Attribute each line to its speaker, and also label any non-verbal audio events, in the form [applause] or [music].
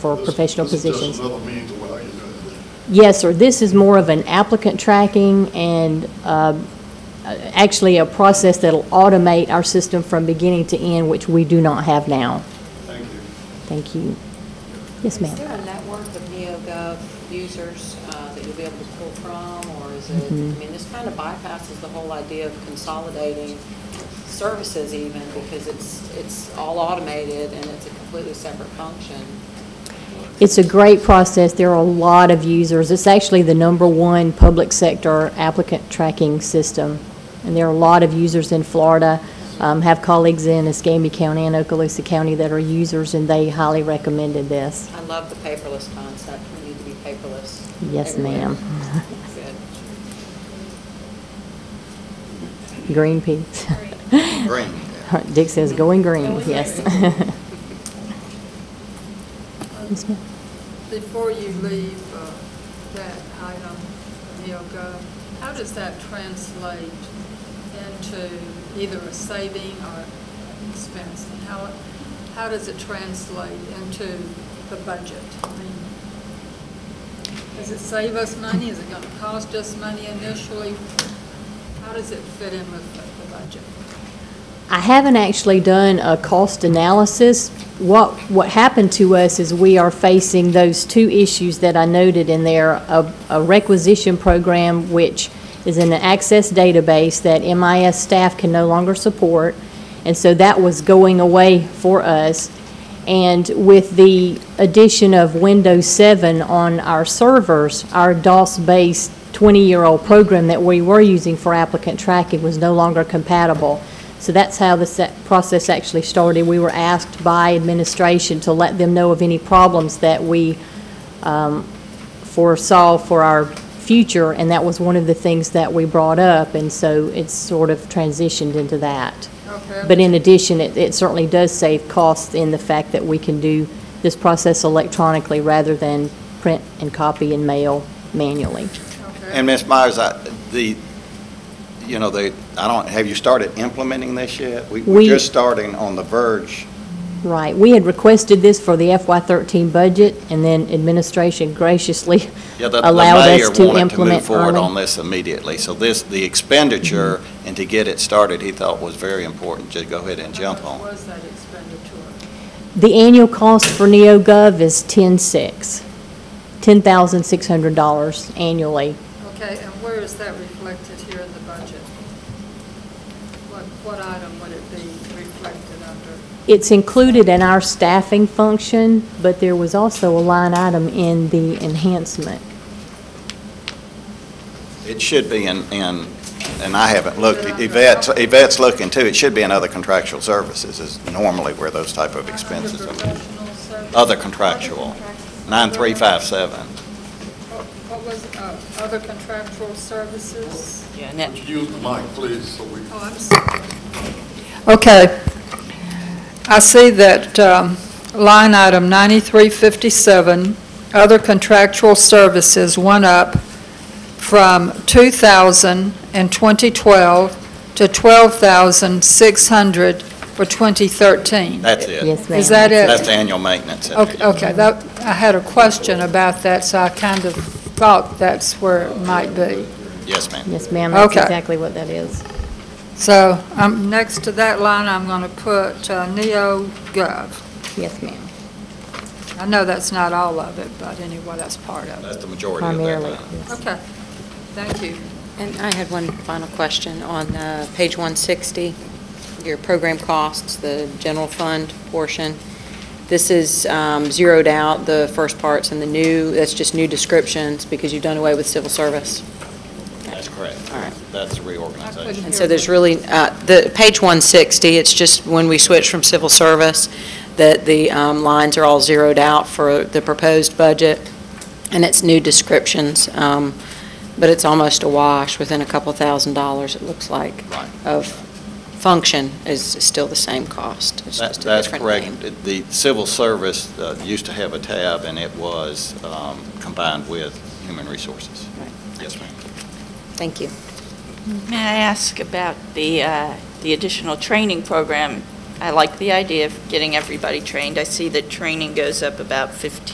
Speaker 1: for professional
Speaker 2: This is just
Speaker 1: positions.
Speaker 2: another means of how you do it.
Speaker 1: Yes, sir, this is more of an applicant tracking and um, uh, actually a process that'll automate our system from beginning to end, which we do not have now.
Speaker 2: Thank you.
Speaker 1: Thank you. Yes,
Speaker 3: Is there
Speaker 1: ma'am.
Speaker 3: a network of NeoGov users uh, that you'll be able to pull from, or is it, I
Speaker 1: Mm-hmm.
Speaker 3: mean, this kind of bypasses the whole idea of consolidating services even, because it's, it's all automated and it's a completely separate function.
Speaker 1: It's a great process. There are a lot of users. It's actually the number one public sector applicant tracking system. And there are a lot of users in Florida, um, have colleagues in Escambia County and Okaloosa County that are users, and they highly recommended this.
Speaker 3: I love the paperless concept, we need to be paperless.
Speaker 1: Yes,
Speaker 3: everywhere.
Speaker 1: ma'am.
Speaker 3: Good.
Speaker 1: Green peas.
Speaker 4: Green.
Speaker 1: [laughs] Dick says going green,
Speaker 5: Going
Speaker 1: yes.
Speaker 5: green.
Speaker 1: Yes, ma'am.
Speaker 5: Before you leave uh, that item, NeoGov, how does that translate into either a saving or expense? And How, how does it translate into the budget? I mean, Does it save us money? Is it going to cost us money initially? How does it fit in with the- the budget?
Speaker 1: I haven't actually done a cost analysis. What, what happened to us is we are facing those two issues that I noted in there, a, a requisition program, which is an access database that MIS staff can no longer support, and so that was going away for us. And with the addition of Windows 7 on our servers, our DOS-based 20-year-old program that we were using for applicant tracking was no longer compatible. So that's how the se- process actually started. We were asked by administration to let them know of any problems that we um, foresaw for our future, and that was one of the things that we brought up, and so it's sort of transitioned into that.
Speaker 5: Okay.
Speaker 1: But in addition, it, it certainly does save costs in the fact that we can do this process electronically rather than print and copy and mail manually.
Speaker 5: Okay.
Speaker 4: And Ms. Myers, I, the, you know, the, I don't, have you started implementing this yet? We-
Speaker 1: We-
Speaker 4: We're just starting on the verge.
Speaker 1: Right. We had requested this for the FY13 budget, and then administration graciously
Speaker 4: Yeah, the- the
Speaker 1: allowed
Speaker 4: mayor
Speaker 1: us to
Speaker 4: wanted to move
Speaker 1: implement
Speaker 4: forward on
Speaker 1: early.
Speaker 4: this immediately. So this, the expenditure and to get it started, he thought was very important to go ahead and jump
Speaker 5: How much
Speaker 4: on.
Speaker 5: was that expenditure?
Speaker 1: The annual cost for NeoGov is 10.6, $10,600 annually.
Speaker 5: Okay, and where is that reflected here in the budget? What, what item would it be reflected under?
Speaker 1: It's included in our staffing function, but there was also a line item in the enhancement.
Speaker 4: It should be in, in, and I haven't looked, Yvette's, Yvette's looking too, it should be in other contractual services is normally where those type of expenses
Speaker 5: Under
Speaker 4: are.
Speaker 5: professional services?
Speaker 4: Other contractual, nine three five seven.
Speaker 5: What what was, it? uh, other contractual services?
Speaker 3: Yeah, net-
Speaker 2: Would you use the mic, please, so we
Speaker 5: Oh, I'm sorry.
Speaker 6: Okay. I see that um, line item 9357, other contractual services, went up from 2,000 in 2012 to 12,600 for 2013.
Speaker 4: That's it.
Speaker 1: Yes, ma'am.
Speaker 6: Is that it?
Speaker 4: That's the annual maintenance.
Speaker 6: Okay, okay, that, I had a question about that, so I kind of thought that's where it might be.
Speaker 4: Yes, ma'am.
Speaker 1: Yes, ma'am, that's
Speaker 6: Okay.
Speaker 1: exactly what that is.
Speaker 6: So, um, next to that line, I'm going to put uh, NeoGov.
Speaker 1: Yes, ma'am.
Speaker 6: I know that's not all of it, but anyway, that's part of it.
Speaker 4: That's the majority of that
Speaker 1: Primarily.
Speaker 4: line.
Speaker 1: yes.
Speaker 6: Okay, thank you.
Speaker 3: And I had one final question on uh, page 160, your program costs, the general fund portion. This is um, zeroed out, the first parts, and the new, that's just new descriptions, because you've done away with civil service.
Speaker 4: That's correct.
Speaker 3: All right.
Speaker 4: That's the reorganization.
Speaker 3: And so there's really, uh, the, page 160, it's just when we switch from civil service, that the um, lines are all zeroed out for the proposed budget, and it's new descriptions, um, but it's almost a wash, within a couple thousand dollars, it looks like,
Speaker 4: Right.
Speaker 3: of function is still the same cost, it's
Speaker 4: That-
Speaker 3: just a
Speaker 4: That's
Speaker 3: different name.
Speaker 4: correct. The civil service uh, used to have a tab, and it was um, combined with human resources.
Speaker 3: Right.
Speaker 4: Yes, ma'am.
Speaker 3: Thank you.
Speaker 7: May I ask about the, uh, the additional training program? I like the idea of getting everybody trained. I see that training goes up about 15